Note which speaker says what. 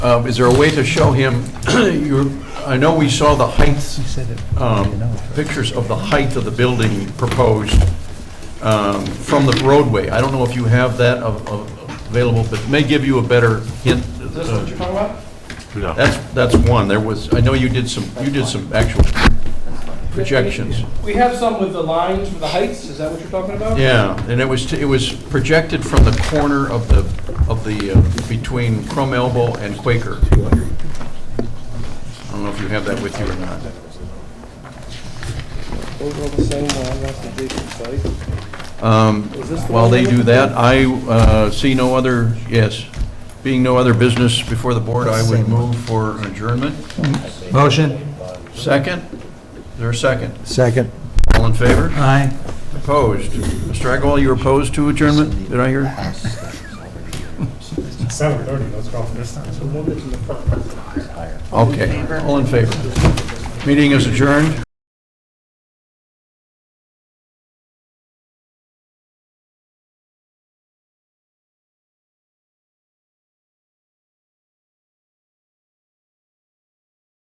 Speaker 1: Um, Is there a way to show him, your, I know we saw the heights, um, pictures of the height of the building proposed um, from the roadway. I don't know if you have that of- of- available, but may give you a better hint.
Speaker 2: Is this what you're talking about?
Speaker 3: No.
Speaker 1: That's, that's one. There was, I know you did some, you did some actual projections.
Speaker 2: We have some with the lines for the heights, is that what you're talking about?
Speaker 1: Yeah, and it was, it was projected from the corner of the, of the, uh, between Crum Elbow and Quaker. I don't know if you have that with you or not.
Speaker 2: Those are all the same, uh, that's the big site.
Speaker 1: Um,
Speaker 2: Was this the
Speaker 1: While
Speaker 2: one
Speaker 1: they
Speaker 2: you're
Speaker 1: do
Speaker 2: looking
Speaker 1: that, I uh, see no other, yes, being no other business before the board, I would move for adjournment.
Speaker 4: Motion?
Speaker 1: Second? Is there a second?
Speaker 4: Second.
Speaker 1: All in favor?
Speaker 4: Aye.
Speaker 1: Opposed? Mr. Agwal, you were opposed to adjournment? Did I hear?
Speaker 5: Seven thirty, let's go for this time.
Speaker 1: Okay. All in favor? Meeting is adjourned.